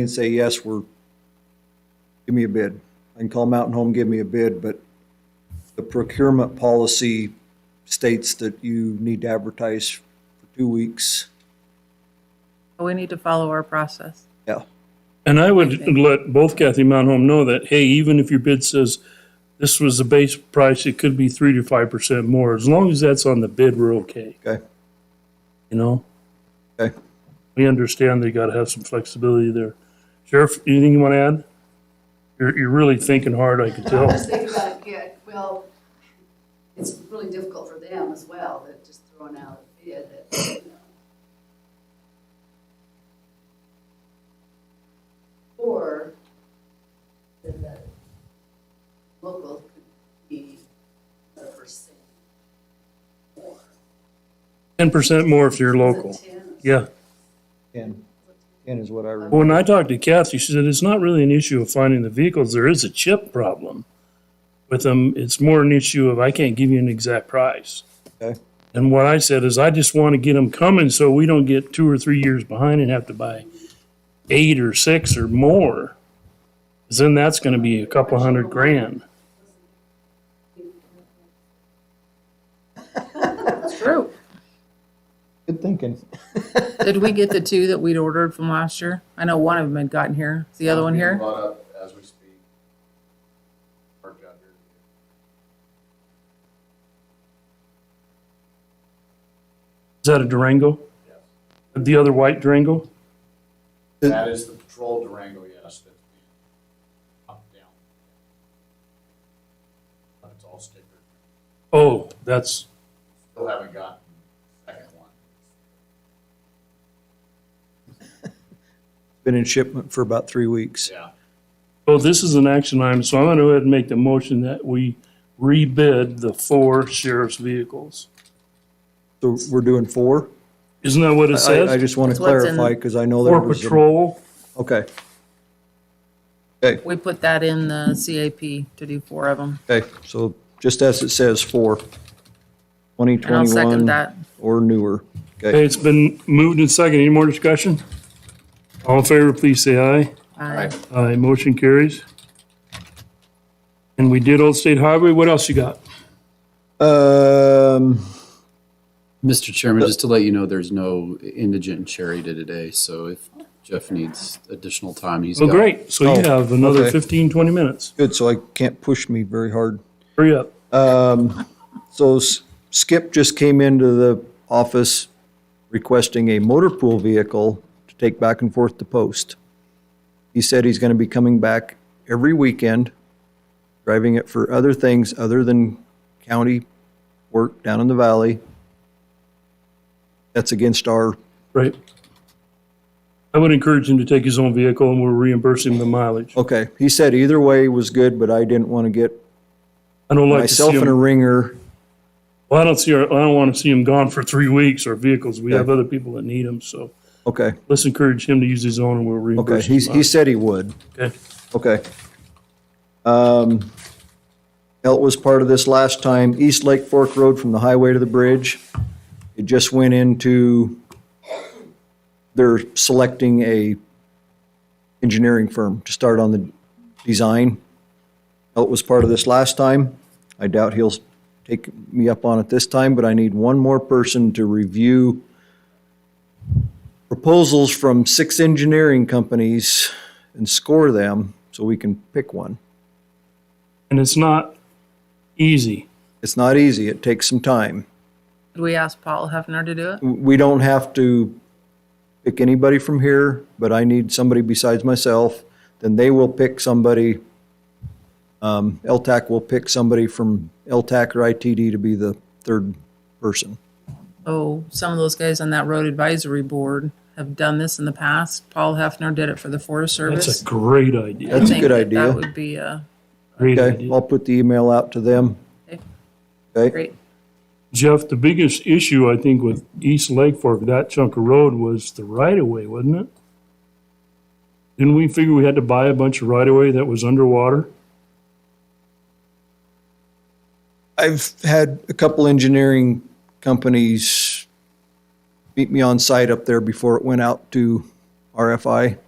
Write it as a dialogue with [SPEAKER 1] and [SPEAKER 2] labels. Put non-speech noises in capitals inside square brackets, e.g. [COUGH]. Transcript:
[SPEAKER 1] and say, yes, we're, give me a bid. I can call Mountain Home, give me a bid, but the procurement policy states that you need to advertise for two weeks.
[SPEAKER 2] We need to follow our process.
[SPEAKER 1] Yeah,
[SPEAKER 3] And I would let both Kathy and Mountain Home know that, hey, even if your bid says this was the base price, it could be three to five percent more. As long as that's on the bid, we're okay,
[SPEAKER 1] okay,
[SPEAKER 3] you know?
[SPEAKER 1] okay.
[SPEAKER 3] We understand they gotta have some flexibility there. Sheriff, anything you wanna add? You're, you're really thinking hard, I could
[SPEAKER 1] [LAUGHS]
[SPEAKER 3] tell.
[SPEAKER 4] Just think about it, yeah, well, it's really difficult for them as well, that just throwing out a bid that, you know. Or that the local could be a percent more.
[SPEAKER 3] Ten percent more if you're local.
[SPEAKER 4] Is it 10 or something?
[SPEAKER 3] Yeah.
[SPEAKER 1] Ten, ten is what I remember.
[SPEAKER 3] When I talked to Kathy, she said it's not really an issue of finding the vehicles. There is a chip problem with them. It's more an issue of I can't give you an exact price.
[SPEAKER 1] Okay.
[SPEAKER 3] And what I said is I just want to get them coming so we don't get two or three years behind and have to buy eight or six or more. 'Cause Then that's going to be a couple hundred grand.
[SPEAKER 2] True.
[SPEAKER 1] Good thinking.
[SPEAKER 2] Did we get the two that we'd ordered from last year? I know one of them had gotten here. Is the other one
[SPEAKER 5] Being
[SPEAKER 2] here?
[SPEAKER 5] Brought up as we speak. Parked out here.
[SPEAKER 3] Is that a Durango? The other white Durango?
[SPEAKER 5] That is the patrol Durango, yes, that's being up, down. But it's all stickered.
[SPEAKER 3] Oh, that's
[SPEAKER 5] Still haven't gotten the second one.
[SPEAKER 1] Been in shipment for about three weeks.
[SPEAKER 5] Yeah.
[SPEAKER 3] Well, this is an action item, so I'm gonna go ahead and make the motion that we rebid the four sheriff's vehicles.
[SPEAKER 1] So we're doing four?
[SPEAKER 3] Isn't that what it
[SPEAKER 1] I, I
[SPEAKER 3] says?
[SPEAKER 1] just want to
[SPEAKER 2] That's what's in-
[SPEAKER 1] clarify, because I know there
[SPEAKER 3] For
[SPEAKER 1] was. a-
[SPEAKER 3] patrol,
[SPEAKER 1] Okay,
[SPEAKER 2] We put that in the CAP to do four of them.
[SPEAKER 1] okay, so just as it says, four. Twenty
[SPEAKER 2] And I'll second
[SPEAKER 1] twenty-one
[SPEAKER 2] that.
[SPEAKER 1] or newer.
[SPEAKER 3] Okay, it's been moved and seconded. Any more discussion? All in favor, please say aye.
[SPEAKER 2] Aye.
[SPEAKER 3] Aye, motion carries. And we did Old State Highway. What else you got?
[SPEAKER 1] Um,
[SPEAKER 6] Mr. Chairman, just to let you know, there's no indigent charity today, so if Jeff needs additional time, he's
[SPEAKER 3] Oh,
[SPEAKER 6] got-
[SPEAKER 3] great. So you
[SPEAKER 1] Oh,
[SPEAKER 3] have another
[SPEAKER 1] okay.
[SPEAKER 3] 15, 20 minutes.
[SPEAKER 1] good, so I can't push me very hard.
[SPEAKER 3] Hurry up.
[SPEAKER 1] So S- Skip just came into the office requesting a motor pool vehicle to take back and forth to post. He said he's gonna be coming back every weekend, driving it for other things other than county work down in the valley. That's against our,
[SPEAKER 3] Right. I would encourage him to take his own vehicle and we'll reimburse him the mileage.
[SPEAKER 1] okay, he said either way was good, but I didn't wanna get
[SPEAKER 3] I don't like to see him.
[SPEAKER 1] myself in a ringer.
[SPEAKER 3] Well, I don't see, our- I don't want to see him gone for three weeks or vehicles. We have other people that need them, so
[SPEAKER 1] Okay,
[SPEAKER 3] let's encourage him to use his own and we'll
[SPEAKER 1] okay,
[SPEAKER 3] reimburse him.
[SPEAKER 1] he, he said he would.
[SPEAKER 3] Okay.
[SPEAKER 1] Okay. Um, Elt was part of this last time, East Lake Fork Road from the highway to the bridge. It just went into, they're selecting a engineering firm to start on the design. Elt was part of this last time. I doubt he'll take me up on it this time, but I need one more person to review proposals from six engineering companies and score them so we can pick one.
[SPEAKER 3] And it's not easy.
[SPEAKER 1] It's not easy, it takes some time.
[SPEAKER 2] Did we ask Paul Hefner to do it?
[SPEAKER 1] We don't have to pick anybody from here, but I need somebody besides myself. Then they will pick somebody, um, LTAC will pick somebody from LTAC or ITD to be the third person.
[SPEAKER 2] Oh, some of those guys on that road advisory board have done this in the past. Paul Hefner did it for the Forest
[SPEAKER 3] That's a
[SPEAKER 2] Service.
[SPEAKER 3] great idea.
[SPEAKER 1] That's a
[SPEAKER 2] Think
[SPEAKER 1] good
[SPEAKER 2] that
[SPEAKER 1] idea.
[SPEAKER 2] That would be a
[SPEAKER 3] Great
[SPEAKER 1] Okay,
[SPEAKER 3] idea.
[SPEAKER 1] I'll put the email out to them.
[SPEAKER 2] Okay.
[SPEAKER 1] Okay,
[SPEAKER 2] great,
[SPEAKER 3] Jeff, the biggest issue I think with East Lake Fork, that chunk of road was the right of way, wasn't it? Didn't we figure we had to buy a bunch of right of way that was underwater?
[SPEAKER 1] I've had a couple engineering companies meet me on site up there before it went out to RFI.